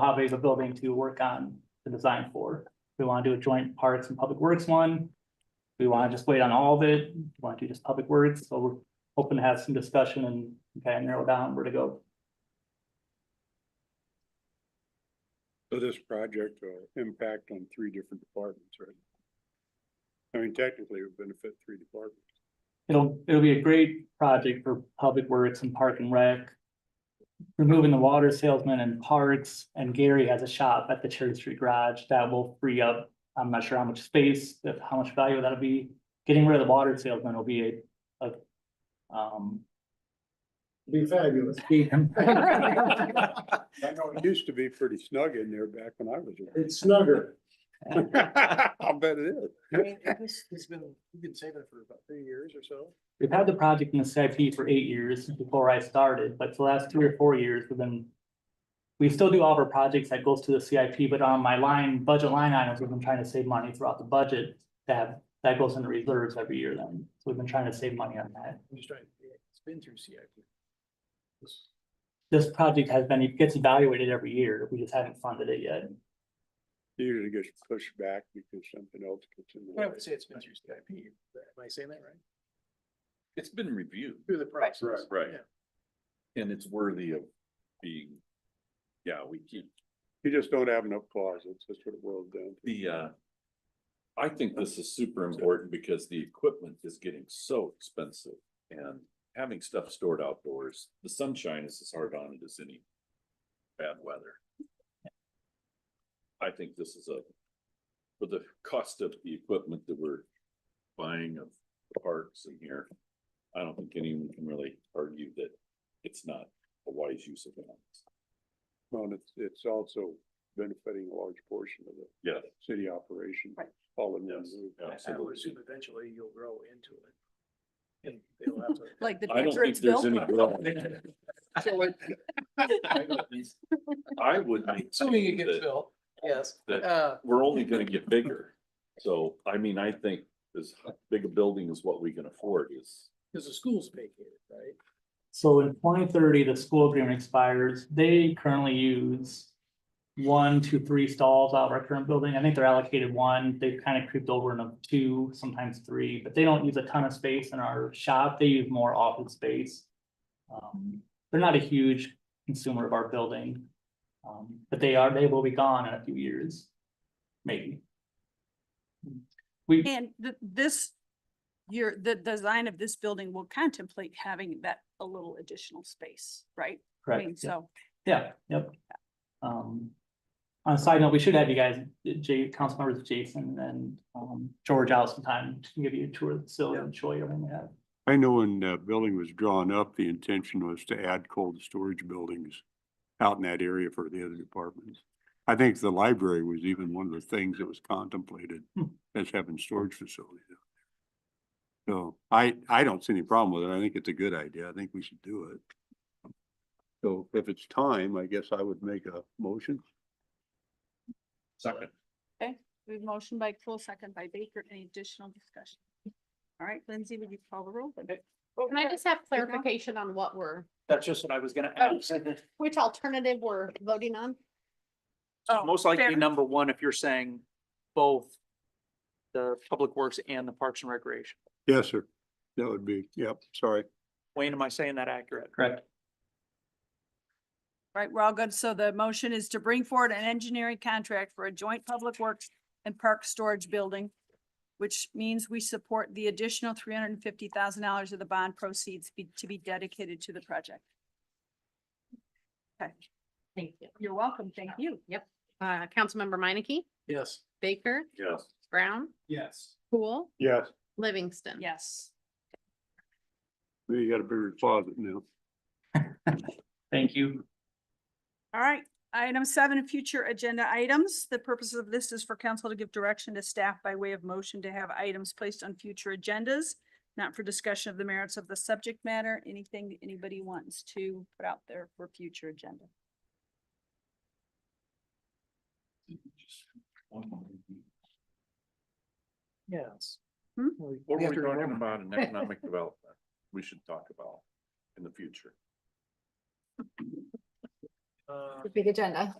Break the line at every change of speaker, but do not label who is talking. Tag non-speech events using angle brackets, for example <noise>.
how big of a building to work on the design for. We wanna do a joint parks and public works one. We wanna just wait on all of it, We wanna do just public works, so we're hoping to have some discussion and kind of narrow down where to go.
So this project will impact on three different departments, right? I mean, technically it would benefit three departments.
It'll, it'll be a great project for public works and park and rec. Removing the water salesman and parks, and Gary has a shop at the Cherry Street Garage that will free up, I'm not sure how much space, if how much value that'll be. Getting rid of the water salesman will be a, a, um, <laughs>
Be fabulous.
I know it used to be pretty snug in there back when I was
It's snugger.
there. <laughs> I'll bet it is.
This has been, we've been saving it for about three years or so.
We've had the project in the CIP for eight years before I started, but the last three or four years, we've been. We still do all of our projects that goes to the CIP, but on my line, budget line items, we've been trying to save money throughout the budget. That, that goes into reserves every year then, so we've been trying to save money on that.
I'm just trying, it's been through CIP.
This project has been, it gets evaluated every year, we just haven't funded it yet.
Usually gets pushed back because something else gets in the
I
way.
would say it's been through CIP. Am I saying that right?
It's been reviewed
Through the process.
Right.
Yeah.
and it's worthy of being, yeah, we keep
You just don't have enough closets, that's what it boils down to.
the, uh. I think this is super important because the equipment is getting so expensive and having stuff stored outdoors, the sunshine is as hard on it as any bad weather. I think this is a, for the cost of the equipment that we're buying of parks in here, I don't think anyone can really argue that it's not a wise use of funds.
Well, it's, it's also benefiting a large portion of the
Yeah.
city operation.
Right.
All in one
Yes.
move.
I would assume eventually you'll grow into it. And they'll have to.
Like the
I don't
picture
think
it's
there's
built.
any. growth.
<laughs>
I would. be
Assuming it
thinking
gets
that
built, yes.
that-
Uh,
We're only gonna get bigger. So, I mean, I think as big a building as what we can afford is,
because the school's vacated, right?
So in twenty thirty, the school agreement expires, they currently use. One, two, three stalls out of our current building, I think they're allocated one, they've kind of creeped over into two, sometimes three, but they don't use a ton of space in our shop, they use more office space. Um, they're not a huge consumer of our building. Um, but they are, they will be gone in a few years, maybe. We.
And th- this, your, the design of this building will contemplate having that a little additional space, right? I
correct,
mean,
yeah.
So,
Yeah, yep. Um, on a side note, we should have you guys, Jay, council members Jason and um George out sometime to give you a tour of the facility and show you everything we have.
I know when the building was drawn up, the intention was to add cold storage buildings out in that area for the other departments. I think the library was even one of the things that was contemplated
Hmm.
as having storage facilities. out there. So I, I don't see any problem with it. I think it's a good idea. I think we should do it. So if it's time, I guess I would make a motion.
second,
we have motion by Cool, second by Baker, any additional discussion? All right, Lindsay, would you call the roll?
Oh,
Can I just have
Moving on.
clarification on what we're,
That's just what I was gonna
Oh. which alternative we're voting on?
Oh,
Most
fair.
likely number one, if you're saying both the Public Works and the Parks and Recreation.
Yes, sir. That would be, yep, sorry.
Wayne, am I saying that accurate?
Correct.
Right, we're all good. So the motion is to bring forward an engineering contract for a joint public works and park storage building, which means we support the additional three hundred and fifty thousand dollars of the bond proceeds be- to be dedicated to the project. Okay,
Thank you.
you're welcome. Thank you.
Yep. Uh, Councilmember Meineke,
Yes.
Baker,
yes.
Brown,
Yes.
Cool,
Yes,
Livingston.
Yes.
you got a bigger closet now.
Thank you.
All right, item seven, future agenda items. The purpose of this is for council to give direction to staff by way of motion to have items placed on future agendas, not for discussion of the merits of the subject matter, anything that anybody wants to put out there for future agenda.
Yes.
Hmm?
Well, we
What
have
are we
to
talking
remember.
about in economic development? We should talk about in the future.
Uh,
The Big agenda.